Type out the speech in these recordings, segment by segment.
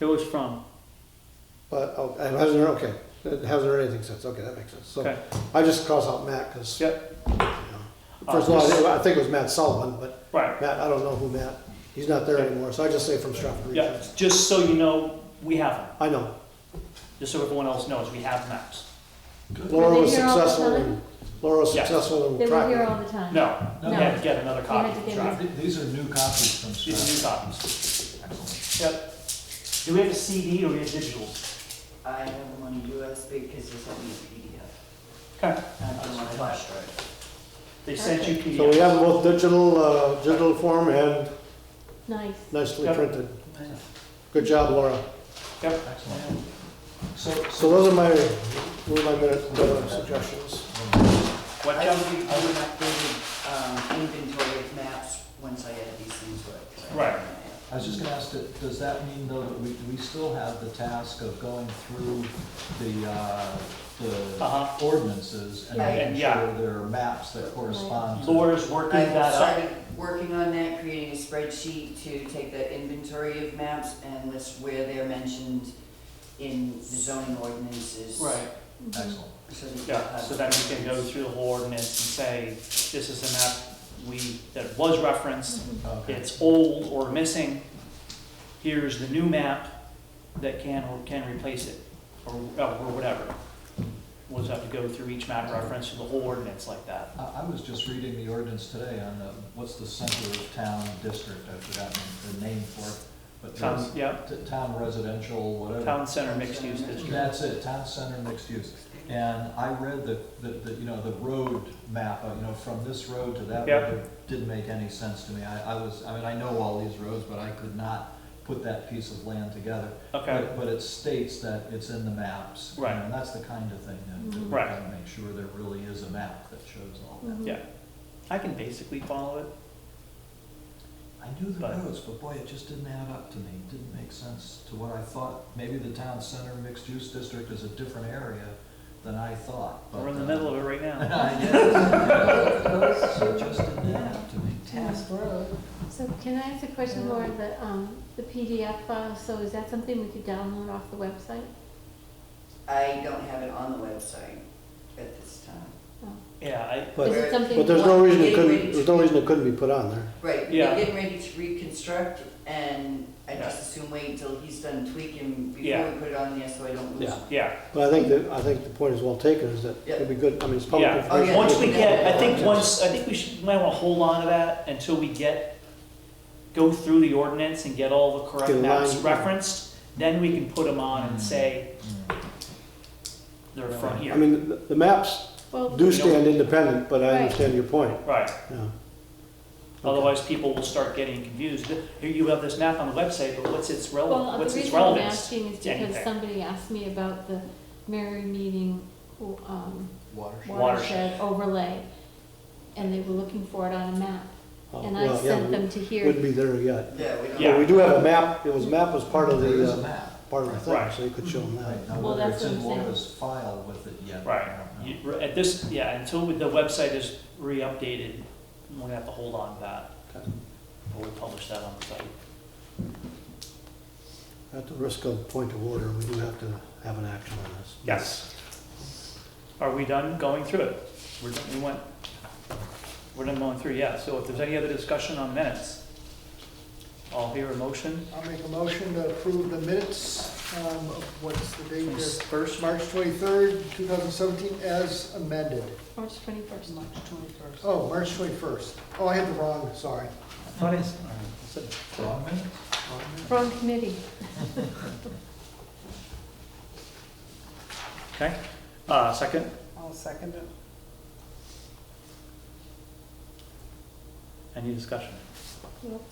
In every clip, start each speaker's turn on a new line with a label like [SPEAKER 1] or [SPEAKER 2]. [SPEAKER 1] It was from,
[SPEAKER 2] But, oh, it hasn't, heard- okay, it hasn't heard anything since, okay, that makes sense. So
[SPEAKER 1] okay,
[SPEAKER 2] I just cross out Matt, because, you
[SPEAKER 1] yep,
[SPEAKER 2] know, first of
[SPEAKER 1] Uh,
[SPEAKER 2] all, I think it was Matt Sullivan, but
[SPEAKER 1] right.
[SPEAKER 2] Matt, I don't know who Matt, he's not there
[SPEAKER 1] Okay.
[SPEAKER 2] anymore, so I just say from Stratford
[SPEAKER 1] Yeah,
[SPEAKER 2] Regions.
[SPEAKER 1] just so you know, we have them,
[SPEAKER 2] I know,
[SPEAKER 1] just so everyone else knows, we have maps.
[SPEAKER 2] Laura
[SPEAKER 3] they
[SPEAKER 2] was
[SPEAKER 3] here all the
[SPEAKER 2] successful,
[SPEAKER 3] time?
[SPEAKER 2] in Laura was
[SPEAKER 1] Yes.
[SPEAKER 2] successful
[SPEAKER 3] They
[SPEAKER 2] in
[SPEAKER 3] were here
[SPEAKER 2] tracking.
[SPEAKER 3] all the time.
[SPEAKER 1] No, you
[SPEAKER 3] No.
[SPEAKER 1] had to get another copy.
[SPEAKER 3] had to get
[SPEAKER 1] Sorry.
[SPEAKER 3] these-
[SPEAKER 4] These are new copies from
[SPEAKER 1] These are
[SPEAKER 4] Stratford.
[SPEAKER 1] new copies.
[SPEAKER 4] Excellent.
[SPEAKER 1] Yep. Do we have a CD or we have digitals?
[SPEAKER 5] I have one USB because it's only a
[SPEAKER 1] Okay,
[SPEAKER 5] PDF. I don't want to flash drive.
[SPEAKER 1] they sent you
[SPEAKER 2] So we
[SPEAKER 1] PDFs.
[SPEAKER 2] have both digital, uh, digital form and
[SPEAKER 3] Nice.
[SPEAKER 2] nicely
[SPEAKER 1] Yep.
[SPEAKER 2] printed. Good job, Laura.
[SPEAKER 4] Excellent. So,
[SPEAKER 2] So those are my, those are my minute, uh, suggestions.
[SPEAKER 1] What,
[SPEAKER 5] I
[SPEAKER 1] John?
[SPEAKER 5] would be, I would have um, inventory of maps once I had these things worked. so I
[SPEAKER 1] Right.
[SPEAKER 5] don't have-
[SPEAKER 4] I was just gonna ask, that- does that mean though that we, we still have the task of going through the, uh,
[SPEAKER 1] Uh-huh.
[SPEAKER 4] the ordinances and
[SPEAKER 3] Right.
[SPEAKER 4] making
[SPEAKER 1] And, yeah.
[SPEAKER 4] sure there are maps that correspond to?
[SPEAKER 1] Laura's working
[SPEAKER 5] I
[SPEAKER 1] that up.
[SPEAKER 5] started working on that, creating a spreadsheet to take the inventory of maps and list where they're mentioned in the zoning ordinances.
[SPEAKER 1] Right,
[SPEAKER 3] Mm-hmm.
[SPEAKER 4] Excellent.
[SPEAKER 5] So that you
[SPEAKER 1] yeah,
[SPEAKER 5] have-
[SPEAKER 1] so then we can go through the whole ordinance and say, this is a map we, that was referenced,
[SPEAKER 4] Okay.
[SPEAKER 1] it's old or missing. Here's the new map that can or can replace it, or, or whatever. We'll just have to go through each map reference to the whole ordinance like that.
[SPEAKER 4] I, I was just reading the ordinance today on the, what's the center of town district, I've forgotten the name for it. but
[SPEAKER 1] Town,
[SPEAKER 4] there's
[SPEAKER 1] yeah,
[SPEAKER 4] t- Town residential, whatever.
[SPEAKER 1] town center mixed use district.
[SPEAKER 4] That's it, town center mixed use. And I read the, the, the, you know, the road map, uh, you know, from this road to that
[SPEAKER 1] Yep.
[SPEAKER 4] road, it didn't make any sense to me. I, I was, I mean, I know all these roads, but I could not put that piece of land together.
[SPEAKER 1] Okay,
[SPEAKER 4] But- But it states that it's in the maps. you know,
[SPEAKER 1] Right.
[SPEAKER 4] And that's the kind of thing that- that we
[SPEAKER 3] Mhm.
[SPEAKER 1] Right.
[SPEAKER 4] gotta make sure there really is a map that shows all that.
[SPEAKER 3] Mhm.
[SPEAKER 1] Yeah. I can basically follow it.
[SPEAKER 4] I knew the
[SPEAKER 1] But-
[SPEAKER 4] roads, but boy, it just didn't add up to me. It didn't make sense to what I thought. Maybe the town center mixed use district is a different area than I thought. but,
[SPEAKER 1] We're in the
[SPEAKER 4] uh,
[SPEAKER 1] middle of it right now.
[SPEAKER 4] I guess. So it just didn't add up to me.
[SPEAKER 3] Task So can I ask a question, Laura, the, um, the PDF file, so is that something we could download off the website?
[SPEAKER 5] I don't have it on the website at this time.
[SPEAKER 1] Yeah, I,
[SPEAKER 2] But-
[SPEAKER 3] Is it something?
[SPEAKER 2] But there's no reason it
[SPEAKER 5] Getting
[SPEAKER 2] couldn't,
[SPEAKER 5] ready to
[SPEAKER 2] there's no
[SPEAKER 5] be-
[SPEAKER 2] reason it couldn't be put on there.
[SPEAKER 5] Right,
[SPEAKER 1] Yeah.
[SPEAKER 5] we're getting ready to reconstruct, and I
[SPEAKER 1] Yeah.
[SPEAKER 5] just assume wait until he's done tweaking before
[SPEAKER 1] Yeah.
[SPEAKER 5] we put it on there, so I don't lose.
[SPEAKER 2] Yeah.
[SPEAKER 1] yeah.
[SPEAKER 2] But I think that, I think the point is well taken, is that it'd be good, I mean, it's public
[SPEAKER 1] Yeah.
[SPEAKER 5] Oh,
[SPEAKER 2] information.
[SPEAKER 5] yeah.
[SPEAKER 1] Once we get, I think once, I think we should, might want to hold on to that until we get, go through the ordinance and get all the correct
[SPEAKER 2] Get a
[SPEAKER 1] maps
[SPEAKER 2] line.
[SPEAKER 1] referenced. Then we can put them on and say
[SPEAKER 4] Mm.
[SPEAKER 1] they're from
[SPEAKER 2] I
[SPEAKER 1] here.
[SPEAKER 2] mean, the- the maps
[SPEAKER 3] Well,
[SPEAKER 2] do stand independent, but I
[SPEAKER 3] Right.
[SPEAKER 2] understand your point,
[SPEAKER 1] Right,
[SPEAKER 2] yeah. Okay.
[SPEAKER 1] otherwise people will start getting confused. Here you have this map on the website, but what's its
[SPEAKER 3] well,
[SPEAKER 1] relevant,
[SPEAKER 3] the
[SPEAKER 1] what's its
[SPEAKER 3] reason I'm
[SPEAKER 1] relevance?
[SPEAKER 3] asking is
[SPEAKER 1] to
[SPEAKER 3] because
[SPEAKER 1] anything?
[SPEAKER 3] somebody asked me about the Mary meeting, um,
[SPEAKER 4] Watershed.
[SPEAKER 1] Watershed.
[SPEAKER 3] watershed overlay, and they were looking for it on a map,
[SPEAKER 2] Uh,
[SPEAKER 3] and I
[SPEAKER 2] well, yeah,
[SPEAKER 3] sent them to
[SPEAKER 2] we
[SPEAKER 3] here.
[SPEAKER 2] Wouldn't be there yet.
[SPEAKER 5] Yeah, we don't.
[SPEAKER 1] Yeah.
[SPEAKER 2] But we do have a map, it was, map was part of
[SPEAKER 4] There is
[SPEAKER 2] the,
[SPEAKER 4] a
[SPEAKER 2] uh,
[SPEAKER 4] map.
[SPEAKER 2] part of the thing,
[SPEAKER 1] Right.
[SPEAKER 2] so you could show them
[SPEAKER 4] Right,
[SPEAKER 2] that.
[SPEAKER 4] now
[SPEAKER 3] Well,
[SPEAKER 4] whether
[SPEAKER 3] that's
[SPEAKER 4] it's in
[SPEAKER 3] what I'm saying.
[SPEAKER 4] Laura's file with it yet. I
[SPEAKER 1] Right.
[SPEAKER 4] don't know.
[SPEAKER 1] You- At this, yeah, until the website is re-updated, we're gonna have to hold on to that.
[SPEAKER 2] Okay.
[SPEAKER 1] We'll publish that on the site.
[SPEAKER 2] At the risk of point of order, we do have to have an action on this.
[SPEAKER 1] Yes. Are we done going through it? We're, done- we went, we're done going through, yeah, so if there's any other discussion on minutes, I'll hear a motion
[SPEAKER 6] I'll make a motion to approve the minutes, um, of what's the date
[SPEAKER 1] from
[SPEAKER 6] here?
[SPEAKER 1] first, Mark,
[SPEAKER 6] March twenty-third, two thousand seventeen, as amended.
[SPEAKER 3] March twenty-first.
[SPEAKER 6] Oh, March twenty-first. Oh, I had the wrong, sorry.
[SPEAKER 1] what is, all right, that's it.
[SPEAKER 4] Wrong minute?
[SPEAKER 3] Wrong committee.
[SPEAKER 1] okay? Uh, second,
[SPEAKER 6] I'll second it.
[SPEAKER 1] any discussion?
[SPEAKER 3] Nope.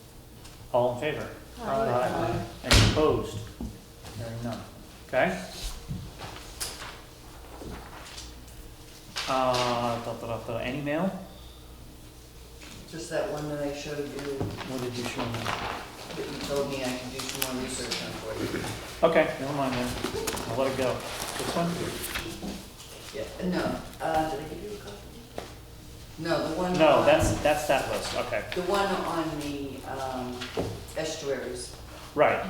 [SPEAKER 1] All in favor?
[SPEAKER 3] Aye.
[SPEAKER 1] Any opposed? Hearing none, okay? Uh, da, da, da, da, any mail?
[SPEAKER 5] Just that one that I showed you,
[SPEAKER 1] What did you show me?
[SPEAKER 5] that you told me I could do some more research on for you.
[SPEAKER 1] Okay, never mind then. I'll let it go. This one?
[SPEAKER 5] Yeah, no, uh, did I give you a copy? No, the one.
[SPEAKER 1] No,
[SPEAKER 5] on-
[SPEAKER 1] that's, that's that list, okay.
[SPEAKER 5] The one on the, um, estuaries.
[SPEAKER 1] Right,